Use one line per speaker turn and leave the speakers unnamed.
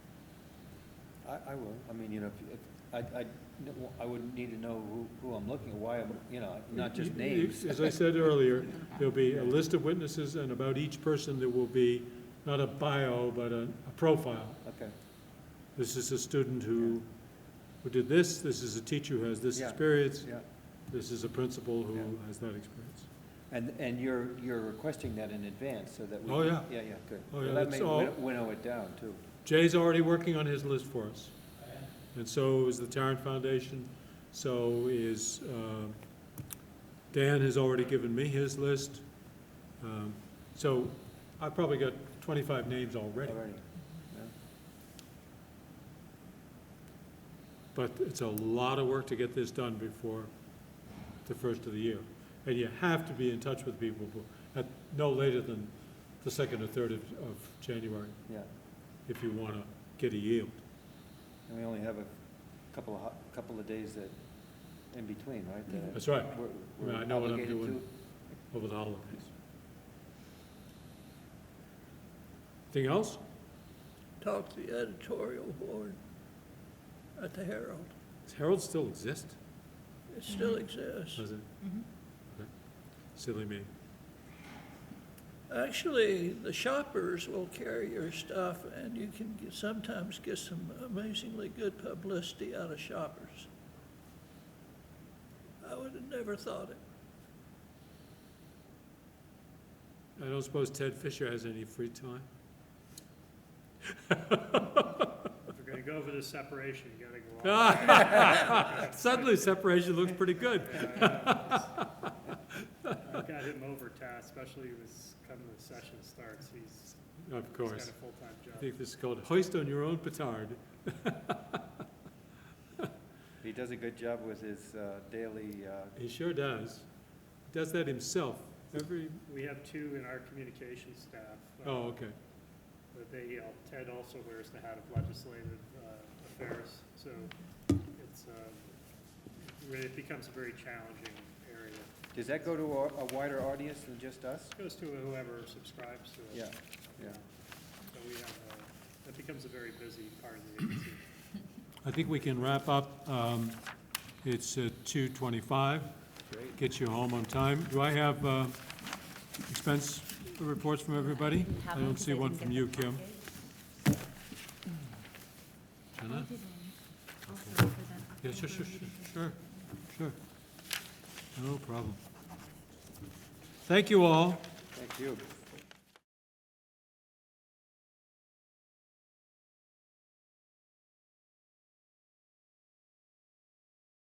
I, I will, I mean, you know, if, if- I, I, I would need to know who, who I'm looking, at, why, I'm you know, not just names.
As I said earlier, there'll be a list of witnesses, and about each person, there will be not a bio, but a a profile.
Okay,
This is a student who, who did this, this is a teacher who has this
Yeah.
experience,
yeah,
this is a principal who
Yeah.
has that experience.
and, and you're, you're requesting that in advance, so that we.
Oh, yeah.
Yeah, yeah, good.
Oh,
Well,
yeah,
That
that's
may
all-
win- winnow it down, too.
Jay's already working on his list for us. And so is the Tarrant Foundation, so is, um, Dan has already given me his list. Um, So I've probably got twenty-five names already,
Already. Yeah.
but it's a lot of work to get this done before the first of the year. And you have to be in touch with people bef- at no later than the second or third of, of January
Yeah,
if you want to get a yield.
and we only have a couple of, hot- couple of days that, in between, right? that
That's right,
we're-
I mean,
we're
Mm-hmm. I know what I'm
obligated
doing.
to.
over the holidays. Anything else?
talk to the editorial board at the Herald.
Does Herald still exist?
It still exists.
Does it? Okay. Silly me.
Actually, the shoppers will carry your stuff, and you can get- sometimes get some amazingly good publicity out of shoppers. I would have never thought it.
I don't suppose Ted Fisher has any free time?
If you're gonna go for the separation, you gotta go all.
Ah, Suddenly separation looks pretty good.
I've got him overtasked, especially was coming the session starts, he's,
Of
he's got a
course.
full-time
I
job.
think this is called hoist on your own petard.
He does a good job with his uh, daily, uh,
He sure does. Does that himself every,
We have two in our communication staff. uh,
oh, okay.
But they, uh, Ted also wears the hat of legislative uh, affairs, so it's, uh, really, it becomes a very challenging area.
does that go to a a wider audience than just us?
Goes to whoever subscribes to it.
Yeah, yeah.
So we have, uh, that becomes a very busy part of the agency.
I think we can wrap up. Um, It's uh, 2:25.
Great.
Get you home on time. Do I have uh, expense reports from everybody?
didn't have
I
one
don't
'cause
see one
didn't
from
get
you,
the
Kim.
package.
Jenna?
I didn't. Also for that
Yeah, sure, sure,
October
sure,
meeting.
sure, sure. No problem. Thank you all.
Thank you.